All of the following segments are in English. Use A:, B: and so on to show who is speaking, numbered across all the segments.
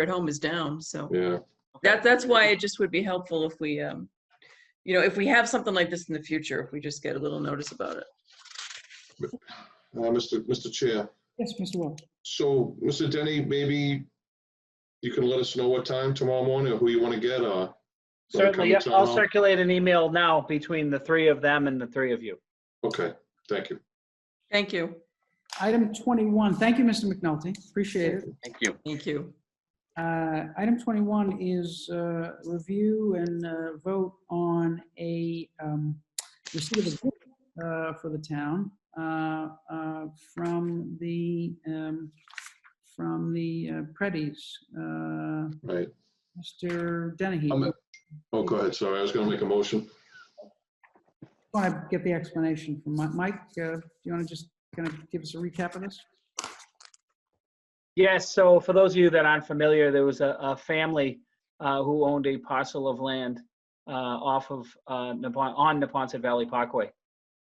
A: at home is down, so
B: yeah.
A: that, that's why it just would be helpful if we, um, you know, if we have something like this in the future, if we just get a little notice about it.
B: Uh, Mr. Mr. Chair,
C: Yes, Mr. Wall.
B: so Mr. Denny, maybe you can let us know what time tomorrow morning or who you want to get or. wanna come
D: Certainly,
B: to
D: yeah,
B: town
D: I'll
B: hall?
D: circulate an email now between the three of them and the three of you.
B: Okay, thank you.
A: Thank you,
C: Item 21, thank you, Mr. McNulty, appreciate it.
E: Thank you.
A: thank you.
C: Uh, Item 21 is uh, review and uh, vote on a um, receipt of a gift uh, for the town uh, uh, from the, um, from the uh, Preddies. Uh,
B: Right.
C: Mr. Dennehy,
B: I'm- Oh, go ahead. Sorry, I was going to make a motion.
C: want to get the explanation from Mi- Mike. uh, Do you want to just kind of give us a recap of this?
D: Yes, so for those of you that aren't familiar, there was a, a family uh, who owned a parcel of land uh, off of, uh, Napon- on Naponton Valley Parkway.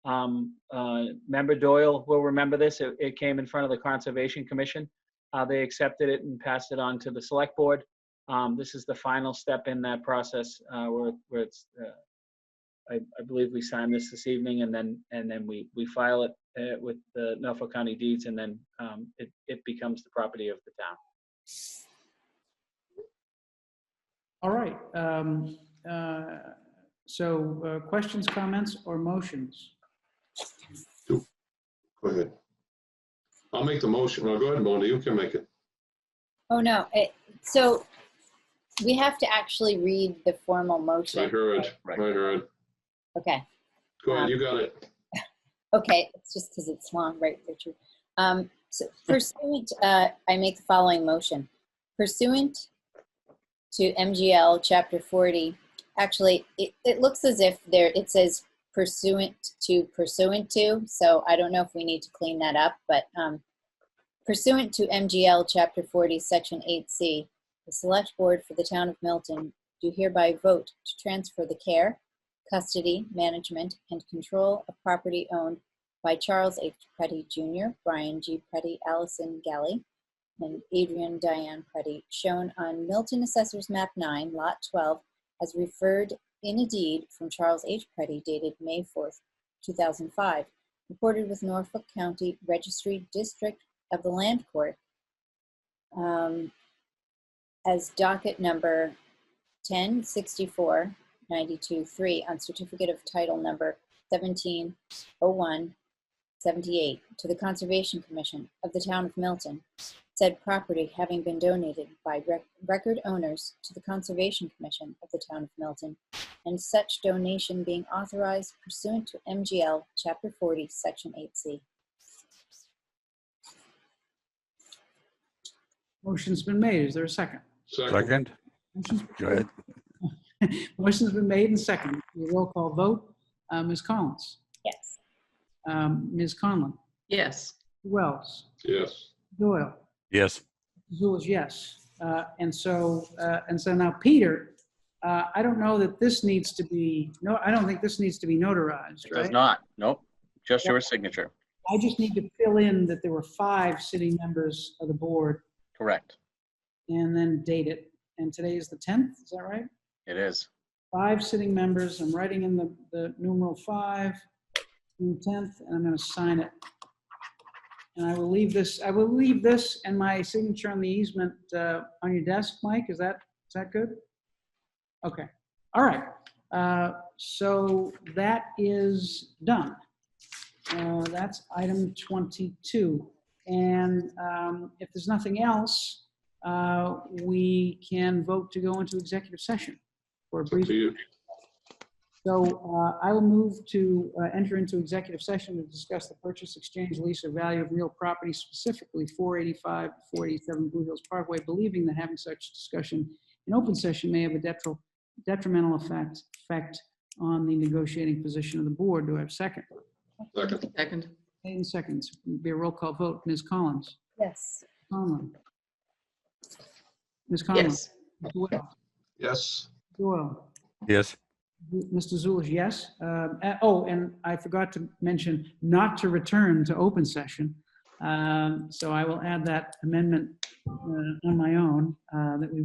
D: Um, uh, Member Doyle will remember this. It, it came in front of the Conservation Commission. Uh, They accepted it and passed it on to the Select Board. Um, This is the final step in that process uh, where, where it's, uh, I, I believe we signed this this evening and then, and then we, we file it uh, with the Norfolk County deeds and then um, it, it becomes the property of the town.
C: All right. um, uh, So uh, questions, comments, or motions?
B: Go ahead. I'll make the motion. No, go ahead, Mona. You can make it.
F: Oh, no, it, so we have to actually read the formal
B: I
F: motion.
B: heard, I
E: Right.
B: heard.
F: Okay,
B: Go ahead, you got it.
F: okay, it's just because it's long, right, Richard? Um, so pursuant, uh, I make the following motion. Pursuant to MGL Chapter 40, actually, it, it looks as if there, it says pursuant to pursuant to, so I don't know if we need to clean that up, but, um, pursuant to MGL Chapter 40, Section 8C, the Select Board for the Town of Milton do hereby vote to transfer the care, custody, management, and control of property owned by Charles H. Preddy Jr., Brian G. Preddy, Allison Galley, and Adrian Diane Preddy, shown on Milton Assessor's Map 9, Lot 12, as referred in a deed from Charles H. Preddy dated May 4th, 2005, recorded with Norfolk County Registry District of the Land Court um, as docket number 1064 92-3 on certificate of title number 1701 78 to the Conservation Commission of the Town of Milton, said property having been donated by rec- record owners to the Conservation Commission of the Town of Milton, and such donation being authorized pursuant to MGL Chapter 40, Section 8C.
C: Motion's been made. Is there a second?
B: Second,
G: Second? Go ahead.
C: Motion's been made and second. Roll call vote. Uh, Ms. Collins?
F: Yes.
C: Um, Ms. Conlon?
A: Yes,
C: Wells?
B: yes.
C: Doyle?
G: Yes.
C: Zoll is yes. Uh, And so, uh, and so now, Peter, uh, I don't know that this needs to be, no, I don't think this needs to be notarized,
E: It does
C: right?
E: not. Nope. Just your signature.
C: I just need to fill in that there were five sitting members of the board
E: Correct.
C: and then date it. And today is the 10th, is that right?
E: It is.
C: Five sitting members, I'm writing in the, the numeral five, June 10th, and I'm going to sign it. And I will leave this, I will leave this and my signature on the easement uh, on your desk, Mike, is that, is that good? Okay, all right, Uh, so that is done. Uh, That's item 22. And um, if there's nothing else, uh, we can vote to go into executive session for a
B: Up
C: brief
B: to you.
C: so uh, I will move to uh, enter into executive session to discuss the purchase, exchange, lease, or value of real property, specifically 485, 487 Blue Hills Parkway, believing that having such discussion in open session may have a detri- detrimental effect, effect on the negotiating position of the board. Do I have a second?
B: Second,
A: second,
C: Eight seconds. Be a roll call vote. Ms. Collins?
F: Yes.
C: Conlon? Ms. Conlon?
A: yes,
C: Doyle?
B: yes.
C: Doyle?
G: Yes.
C: Mr. Zulish, yes. Um, a- Oh, and I forgot to mention not to return to open session Um, So I will add that amendment uh, on my own, uh, that we